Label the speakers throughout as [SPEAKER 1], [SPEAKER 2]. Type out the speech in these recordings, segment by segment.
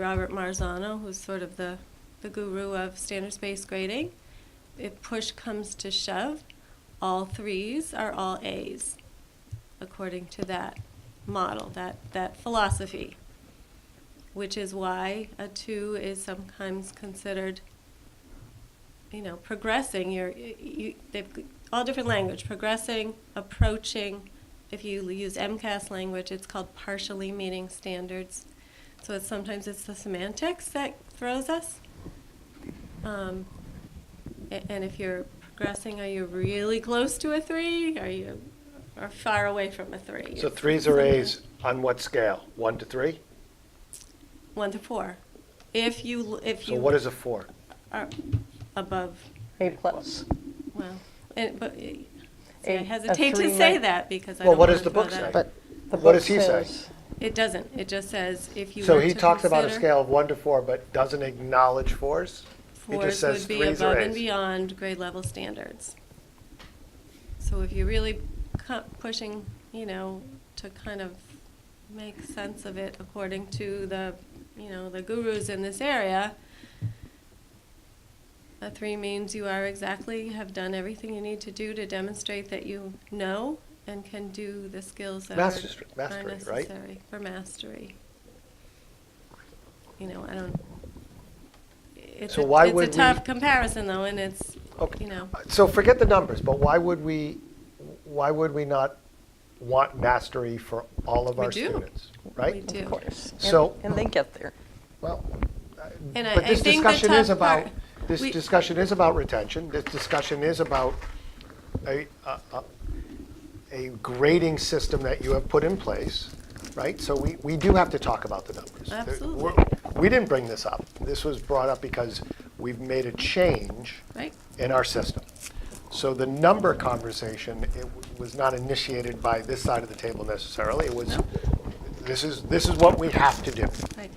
[SPEAKER 1] Robert Marzano, who's sort of the, the guru of standards-based grading. If push comes to shove, all threes are all A's, according to that model, that, that philosophy, which is why a two is sometimes considered, you know, progressing. You're, you, they've all different language, progressing, approaching. If you use MCAS language, it's called partially meeting standards. So it's sometimes it's the semantics that throws us. Um, a- and if you're progressing, are you really close to a three? Are you are far away from a three?
[SPEAKER 2] So threes are A's on what scale? One to three?
[SPEAKER 1] One to four. If you if
[SPEAKER 2] So
[SPEAKER 1] you
[SPEAKER 2] what is a four?
[SPEAKER 1] are above,
[SPEAKER 3] A plus.
[SPEAKER 1] well, and, but see, I
[SPEAKER 3] A- a
[SPEAKER 1] hesitate to
[SPEAKER 3] three
[SPEAKER 1] say
[SPEAKER 3] might-
[SPEAKER 1] that because I
[SPEAKER 2] Well,
[SPEAKER 1] don't
[SPEAKER 2] what
[SPEAKER 1] wanna
[SPEAKER 2] does the
[SPEAKER 1] throw
[SPEAKER 2] book
[SPEAKER 1] that
[SPEAKER 2] say?
[SPEAKER 1] out.
[SPEAKER 3] But the
[SPEAKER 2] What
[SPEAKER 3] book
[SPEAKER 2] does he say?
[SPEAKER 3] says
[SPEAKER 1] It doesn't. It just says if you.
[SPEAKER 2] So
[SPEAKER 1] were
[SPEAKER 2] he
[SPEAKER 1] to
[SPEAKER 2] talks about a
[SPEAKER 1] consider-
[SPEAKER 2] scale of one to four, but doesn't acknowledge fours? He just
[SPEAKER 1] Fours
[SPEAKER 2] says
[SPEAKER 1] would be
[SPEAKER 2] threes are
[SPEAKER 1] above and
[SPEAKER 2] As.
[SPEAKER 1] beyond grade level standards. So if you're really cu- pushing, you know, to kind of make sense of it according to the, you know, the gurus in this area, a three means you are exactly, have done everything you need to do to demonstrate that you know and can do the skills that are are
[SPEAKER 2] Mastery-
[SPEAKER 1] necessary
[SPEAKER 2] mastery, right?
[SPEAKER 1] for mastery. You know, I don't, it's
[SPEAKER 2] So
[SPEAKER 1] a-
[SPEAKER 2] why would
[SPEAKER 1] It's a tough
[SPEAKER 2] we-
[SPEAKER 1] comparison though, and it's,
[SPEAKER 2] Okay. Uh,
[SPEAKER 1] you know,
[SPEAKER 2] So forget the numbers, but why would we, why would we not want mastery for all of
[SPEAKER 1] We
[SPEAKER 2] our
[SPEAKER 1] do.
[SPEAKER 2] students,
[SPEAKER 1] We
[SPEAKER 2] right?
[SPEAKER 1] do.
[SPEAKER 3] Of course. And-
[SPEAKER 2] So-
[SPEAKER 3] And they get there.
[SPEAKER 2] Well, I-
[SPEAKER 1] And I-
[SPEAKER 2] but
[SPEAKER 1] I
[SPEAKER 2] this
[SPEAKER 1] think the
[SPEAKER 2] discussion is
[SPEAKER 1] tough
[SPEAKER 2] about,
[SPEAKER 1] part-
[SPEAKER 2] this
[SPEAKER 1] we-
[SPEAKER 2] discussion is about retention, this discussion is about a, a- a- a grading system that you have put in place, right? So we, we do have to talk about the numbers. There-
[SPEAKER 1] Absolutely.
[SPEAKER 2] we're- We didn't bring this up, this was brought up because we've made a change
[SPEAKER 1] right?
[SPEAKER 2] in our system. So the number conversation, it w- was not initiated by this side of the table necessarily, it was,
[SPEAKER 1] No.
[SPEAKER 2] this is, this is what we have to do.
[SPEAKER 1] Right.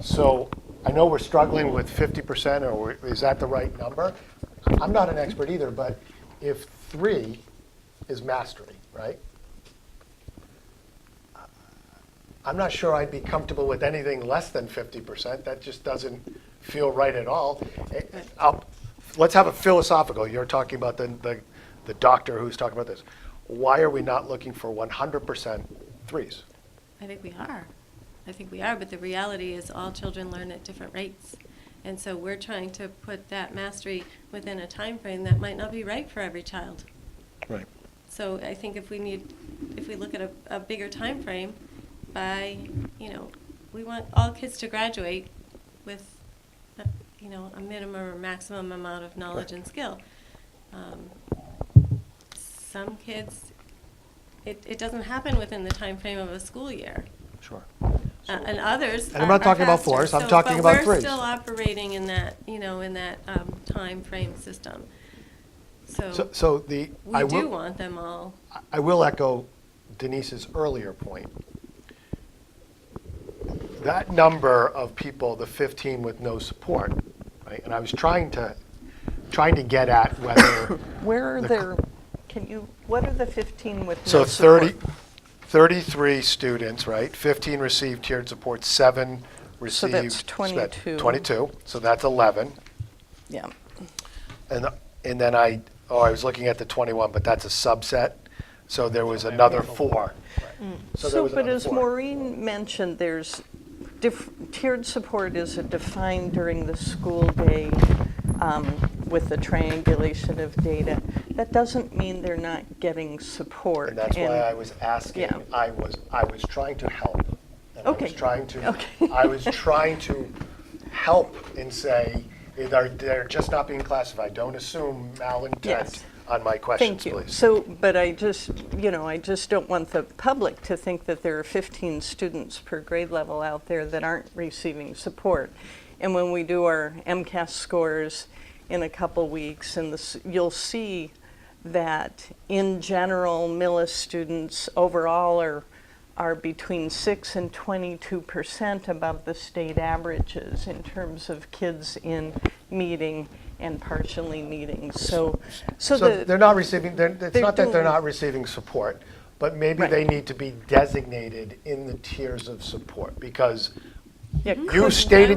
[SPEAKER 2] So I know we're struggling with 50%, or we're- is that the right number? I'm not an expert either, but if three is mastery, right? I'm not sure I'd be comfortable with anything less than 50%. That just doesn't feel right at all. Eh, eh, I'll- Let's have a philosophical, you're talking about the, the- the doctor who's talking about this. Why are we not looking for 100% threes?
[SPEAKER 1] I think we are. I think we are, but the reality is all children learn at different rates. And so we're trying to put that mastery within a time frame that might not be right for every child.
[SPEAKER 2] Right.
[SPEAKER 1] So I think if we need, if we look at a, a bigger time frame, by, you know, we want all kids to graduate with, uh, you know, a minimum or maximum amount of knowledge and skill. Um, Some kids, it, it doesn't happen within the time frame of a school year.
[SPEAKER 2] Sure.
[SPEAKER 1] Uh, and others.
[SPEAKER 2] And I'm
[SPEAKER 1] are-
[SPEAKER 2] not
[SPEAKER 1] are
[SPEAKER 2] talking about
[SPEAKER 1] faster.
[SPEAKER 2] fours, I'm
[SPEAKER 1] So-
[SPEAKER 2] talking about
[SPEAKER 1] But we're
[SPEAKER 2] threes.
[SPEAKER 1] still operating in that, you know, in that um, frame system.
[SPEAKER 2] So,
[SPEAKER 1] So
[SPEAKER 2] so the, I
[SPEAKER 1] we
[SPEAKER 2] will.
[SPEAKER 1] do want them all.
[SPEAKER 2] I will echo Denise's earlier point. That number of people, the 15 with no support, right? And I was trying to, trying to get at whether,
[SPEAKER 3] Where are
[SPEAKER 2] The
[SPEAKER 3] their, can you, what are the 15 with
[SPEAKER 2] so
[SPEAKER 3] no
[SPEAKER 2] 30,
[SPEAKER 3] support?
[SPEAKER 2] 33 students, right? 15 received tiered support, seven
[SPEAKER 3] So
[SPEAKER 2] received.
[SPEAKER 3] that's
[SPEAKER 2] spe-
[SPEAKER 3] 22.
[SPEAKER 2] 22, so that's 11.
[SPEAKER 3] Yeah.
[SPEAKER 2] And, and then I, oh, I was looking at the 21, but that's a subset, so there was another four. So there
[SPEAKER 3] Mm. So,
[SPEAKER 2] was
[SPEAKER 3] but
[SPEAKER 2] another
[SPEAKER 3] as
[SPEAKER 2] four.
[SPEAKER 3] Maureen mentioned, there's, diff- tiered support is defined during the school day um, with the triangulation of data. That doesn't mean they're not getting support.
[SPEAKER 2] And that's why I was asking,
[SPEAKER 3] yeah.
[SPEAKER 2] I was, I was trying to help. And I was
[SPEAKER 3] Okay.
[SPEAKER 2] trying to,
[SPEAKER 3] Okay.
[SPEAKER 2] I was trying to help and say, eh, they're, they're just not being classified. Don't assume malintent
[SPEAKER 3] Yes.
[SPEAKER 2] on my questions,
[SPEAKER 3] Thank you.
[SPEAKER 2] please.
[SPEAKER 3] So, but I just, you know, I just don't want the public to think that there are 15 students per grade level out there that aren't receiving support. And when we do our MCAS scores in a couple weeks, and this, you'll see that in general, Millis students overall are are between 6 and 22 percent above the state averages in terms of kids in meeting and partially meeting. So, so,
[SPEAKER 2] So
[SPEAKER 3] the,
[SPEAKER 2] they're not receiving, they're- it's
[SPEAKER 3] they're
[SPEAKER 2] not that they're
[SPEAKER 3] doing-
[SPEAKER 2] not receiving support, but maybe
[SPEAKER 3] Right.
[SPEAKER 2] they need to be designated in the tiers of support because
[SPEAKER 3] Yeah,
[SPEAKER 2] You
[SPEAKER 3] could-
[SPEAKER 2] stated